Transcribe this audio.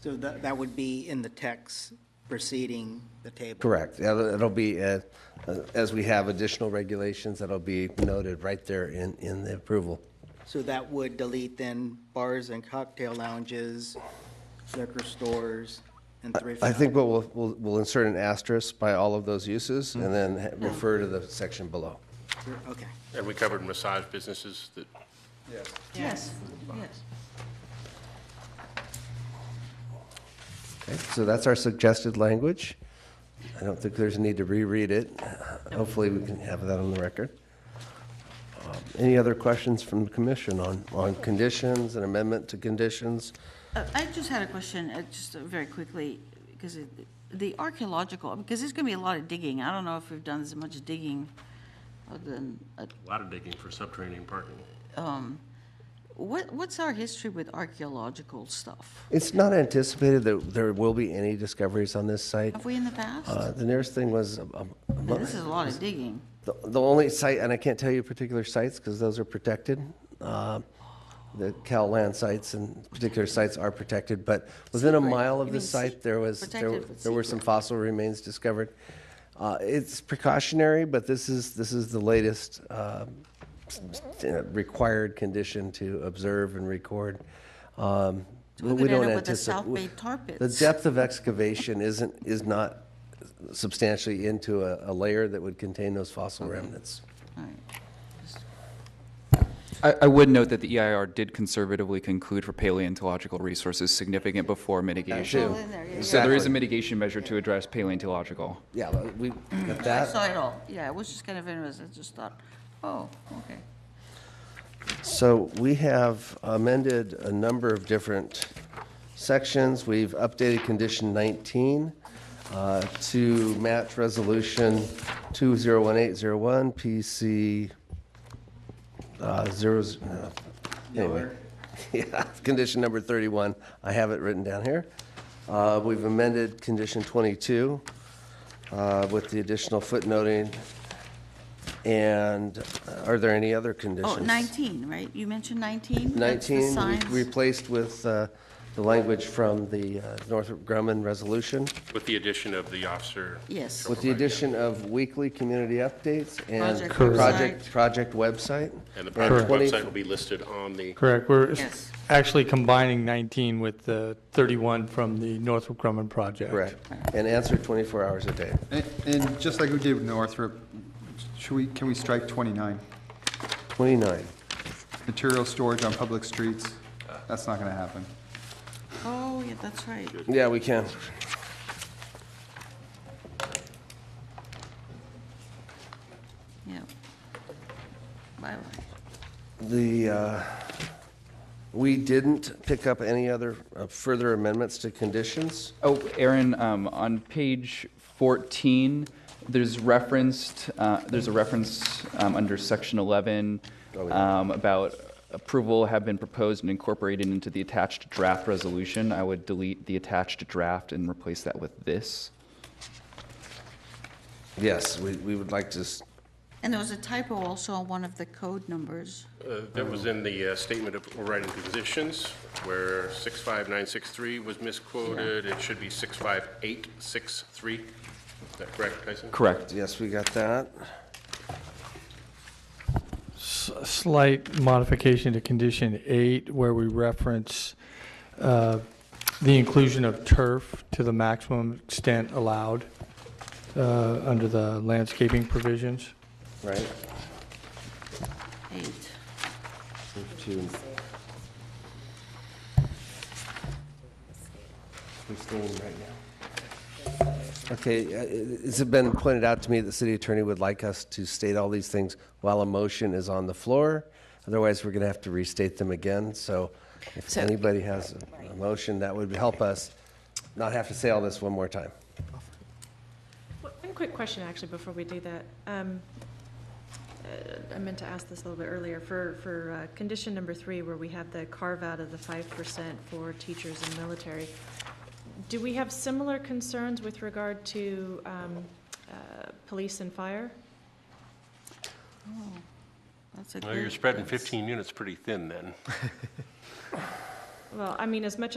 So that, that would be in the text preceding the table? Correct. It'll it'll be, uh, uh, as we have additional regulations, that'll be noted right there in, in the approval. So that would delete then bars and cocktail lounges, liquor stores, and thrift I shops? think what we'll, we'll, we'll insert an asterisk by all of those uses and then ha- refer to the section below. Okay. And we covered massage businesses that, Yes, yes. Okay, So that's our suggested language. I don't think there's a need to reread it. Hopefully, we can have that on the record. Um, Any other questions from the commission on, on conditions, an amendment to conditions? Uh, I just had a question, uh, just uh, very quickly, because it- the archaeological, because there's going to be a lot of digging. I don't know if we've done as much digging other than, uh, a lot of digging for subterranean parking. what, what's our history with archaeological stuff? It's not anticipated that there will be any discoveries on this site. Have we in the past? Uh, The nearest thing was, um, um, Now, This is a lot of digging. the the only site, and I can't tell you particular sites because those are protected. uh, The Cal land sites and particular sites are protected, but within a mile of You the mean site, se- there was, there protected were- but there were some secret. fossil remains discovered. Uh, It's precautionary, but this is, this is the latest um, s- s- uh, required condition to observe and record. Um, we but could don't end up with the anticipate. South Bay tar The pits. depth of excavation isn't, is not substantially into a, a layer that would contain those fossil remnants. All right. I, I would note that the EIR did conservatively conclude for paleontological resources significant before mitigation. in there, yeah, So there Exactly. is a mitigation measure to address paleontological. Yeah, but we, got I that. saw it all, yeah, it was just kind of interesting, I just thought, oh, okay. So we have amended a number of different sections. We've updated condition 19 uh, to match resolution 201801 PC uh, zero, z- uh, anyway. Yeah, condition number 31. I have it written down here. Uh, We've amended condition 22 uh, with the additional footnoting. And uh, are there any other Oh, conditions? 19, right? You mentioned 19? That's the 19, signs. we replaced with uh, the language from the uh, Northrop Grumman resolution, With the addition of the officer. Yes. with the addition of weekly community updates and Project project, website. project website. And the project 20 website will be listed on the, Correct. We're Yes. actually combining 19 with the 31 from the Northrop Grumman project. Correct, and answer 24 hours a day. And- And just like we did with Northrop, should we, can we strike 29? 29, Material storage on public streets, that's not going to happen. Oh, yeah, that's right. yeah, we can. Yeah. Bye-bye. The, uh, we didn't pick up any other uh, further amendments to conditions. Oh, Aaron, um, on page 14, there's referenced, uh, there's a reference, um, under section 11, um, about approval have been proposed and incorporated into the attached draft resolution. I would delete the attached draft and replace that with this. Yes, we, we would like to, s- And there was a typo also on one of the code numbers. uh, that was in the uh, statement of overriding conditions where 65963 was misquoted. It should be 65863. Is that correct, Tyson? Correct. yes, we got that. S- Slight modification to condition eight, where we reference uh, the inclusion of turf to the maximum extent allowed uh, under the landscaping provisions. Right, Eight. to. Fifteen right now. Okay, uh, it- it's been pointed out to me that the city attorney would like us to state all these things while a motion is on the floor. Otherwise, we're going to have to restate them again, so if So- anybody has a- a motion, that would help us not have to say all this one more time. One one quick question, actually, before we do that. Um, uh, I meant to ask this a little bit earlier. For, for uh, condition number three, where we have the carve-out of the 5% for teachers and military, do we have similar concerns with regard to um, uh, police and fire? That's a Well, you're good- spreading that's- 15 units pretty thin then. Well, I mean, as much as